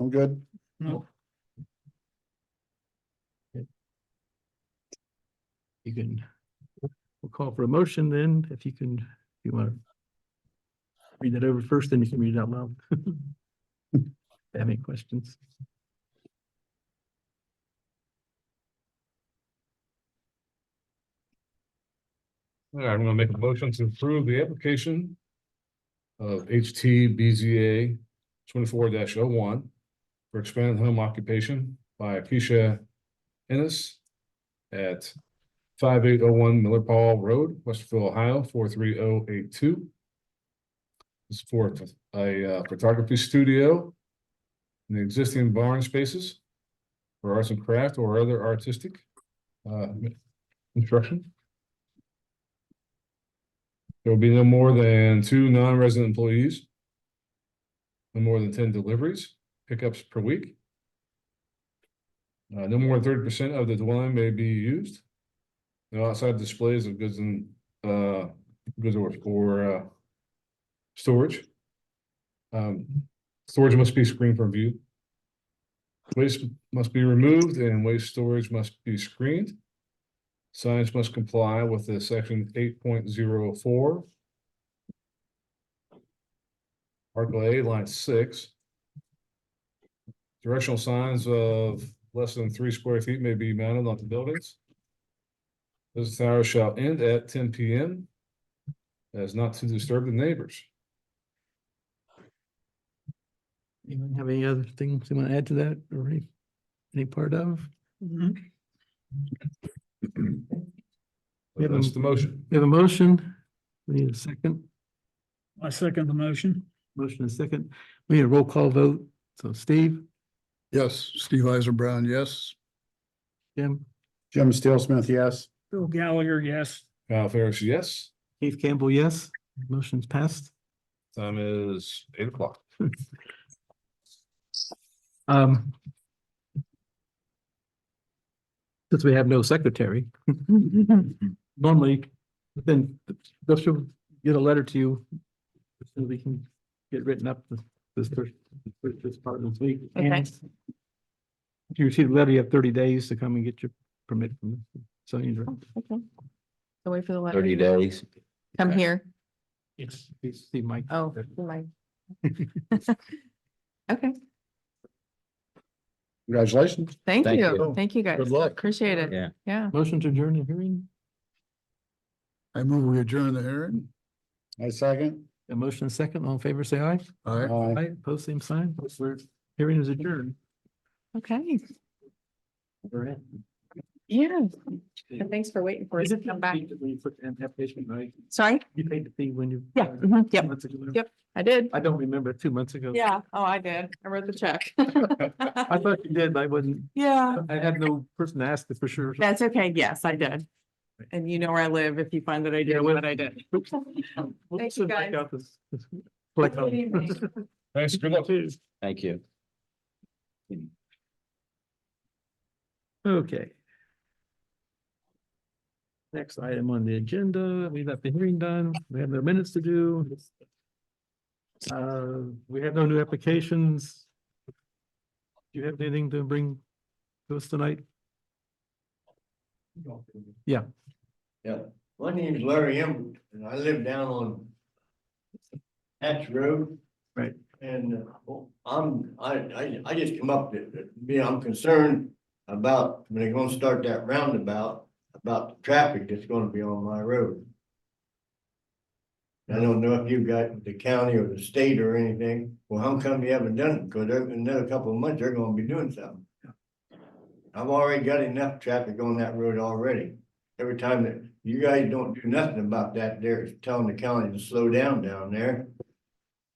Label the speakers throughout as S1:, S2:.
S1: I'm good.
S2: You can, we'll call for a motion then, if you can, if you want to read that over first, then you can read it out loud. If you Have any questions?
S3: All right, I'm gonna make a motion to approve the application of HTBZA twenty-four oh one for expanded home occupation by Keisha Ennis at five eight oh one Miller Paul Road, Westerville, Ohio, four three oh eight two. It's for a uh, photography studio in the existing barn spaces for arts and craft or other artistic uh, instruction. There will be no more than two non-resident employees. No more than ten deliveries, pickups per week. Uh, no more than thirty percent of the dwelling may be used. No outside displays of goods and, uh, goods or, or, uh, storage. Um, storage must be screened from view. Waste must be removed and waste storage must be screened. Signs must comply with the section eight point zero four. Article A, line six. Directional signs of less than three square feet may be mounted on the buildings. Business hours shall end at ten P M. As not to disturb the neighbors.
S2: Anyone have any other things they want to add to that or any, any part of? Yeah,
S3: That's
S2: but-
S3: the motion.
S2: We have a motion. We need a second.
S4: I second the motion.
S2: Motion and second. We need a roll call vote. So Steve,
S1: Yes, Steve Eisenbrown, yes.
S2: Jim,
S1: Jim Steele Smith, yes.
S4: Bill Gallagher, yes.
S3: Kyle Ferris, yes.
S2: Keith Campbell, yes. Motion's passed.
S3: Time is eight o'clock.
S2: Um. Since we have no secretary. Normally, then they'll get a letter to you. So we can get written up this, this first, this first part of this week.
S5: Okay.
S2: And If you receive a letter, you have thirty days to come and get your permit from the zoning director.
S5: Okay. So wait for the letter.
S6: Thirty days.
S5: Come here.
S2: Yes. Please see Mike.
S5: Oh, my. Okay,
S1: Congratulations.
S5: thank
S6: Thank
S5: you.
S1: you.
S5: Thank you guys.
S1: Good luck.
S5: Appreciate it.
S6: Yeah.
S5: Yeah.
S2: Motion to adjourn the hearing,
S1: I move we adjourn the hearing. I second.
S2: a motion and second, all in favor, say aye.
S1: Aye.
S2: Aye, post same sign, We're- hearing is adjourned.
S5: Okay.
S2: We're in.
S5: Yeah. And thanks for waiting for us
S2: Is
S5: to
S2: it
S5: come back.
S2: When you put an application, right?
S5: Sorry?
S2: You paid the fee when you.
S5: Yeah, mhm, yep,
S2: Months ago.
S5: yep. I did.
S2: I don't remember, two months ago.
S5: Yeah. Oh, I did. I wrote the check.
S2: I thought you did, I wasn't,
S5: Yeah.
S2: I had no person to ask it for sure.
S5: That's okay. Yes, I did. And you know where I live if you find that I
S2: Yeah,
S5: did
S2: well-
S5: what I did.
S2: Oops. We'll
S5: Thank
S2: send
S5: you,
S2: back
S5: guys.
S2: out this- this- collect
S5: Have a good
S2: all-
S5: evening.
S3: Thanks, good luck.
S6: Thank you.
S2: Okay. Next item on the agenda, we got the hearing done, we have no minutes to do. Uh, we have no new applications. Do you have anything to bring to us tonight? Yeah.
S7: Yeah, my name's Larry Emmett, and I live down on Hatch Road.
S2: Right.
S7: And uh, I'm, I, I, I just come up uh, to, to me, I'm concerned about when they're gonna start that roundabout, about the traffic that's gonna be on my road. I don't know if you've got the county or the state or anything, well, how come you haven't done it? Because in another couple of months, they're gonna be doing something. I've already got enough traffic on that road already every time that you guys don't do nothing about that, they're telling the county to slow down down there.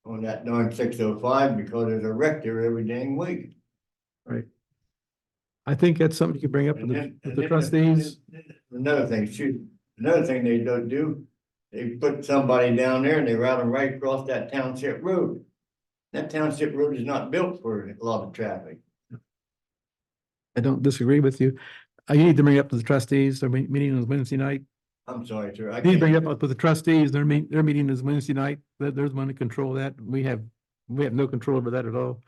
S7: On that darn six oh five because there's a wreck there every dang week.
S2: I think that's something you could bring up with
S7: And
S2: the,
S7: then-
S2: with
S7: and
S2: the
S7: then
S2: trustees.
S7: Another thing, shoot, another thing they don't do, they put somebody down there and they route them right across that township road. That township road is not built for a lot of traffic.
S2: I don't disagree with you. I need to bring up to the trustees, their me- meeting is Wednesday night.
S7: I'm sorry, sir. I
S2: I need to bring
S7: can't,
S2: it up with the trustees, their meet, their meeting is Wednesday night, that there's one to control that. We have, we have no control over that at all.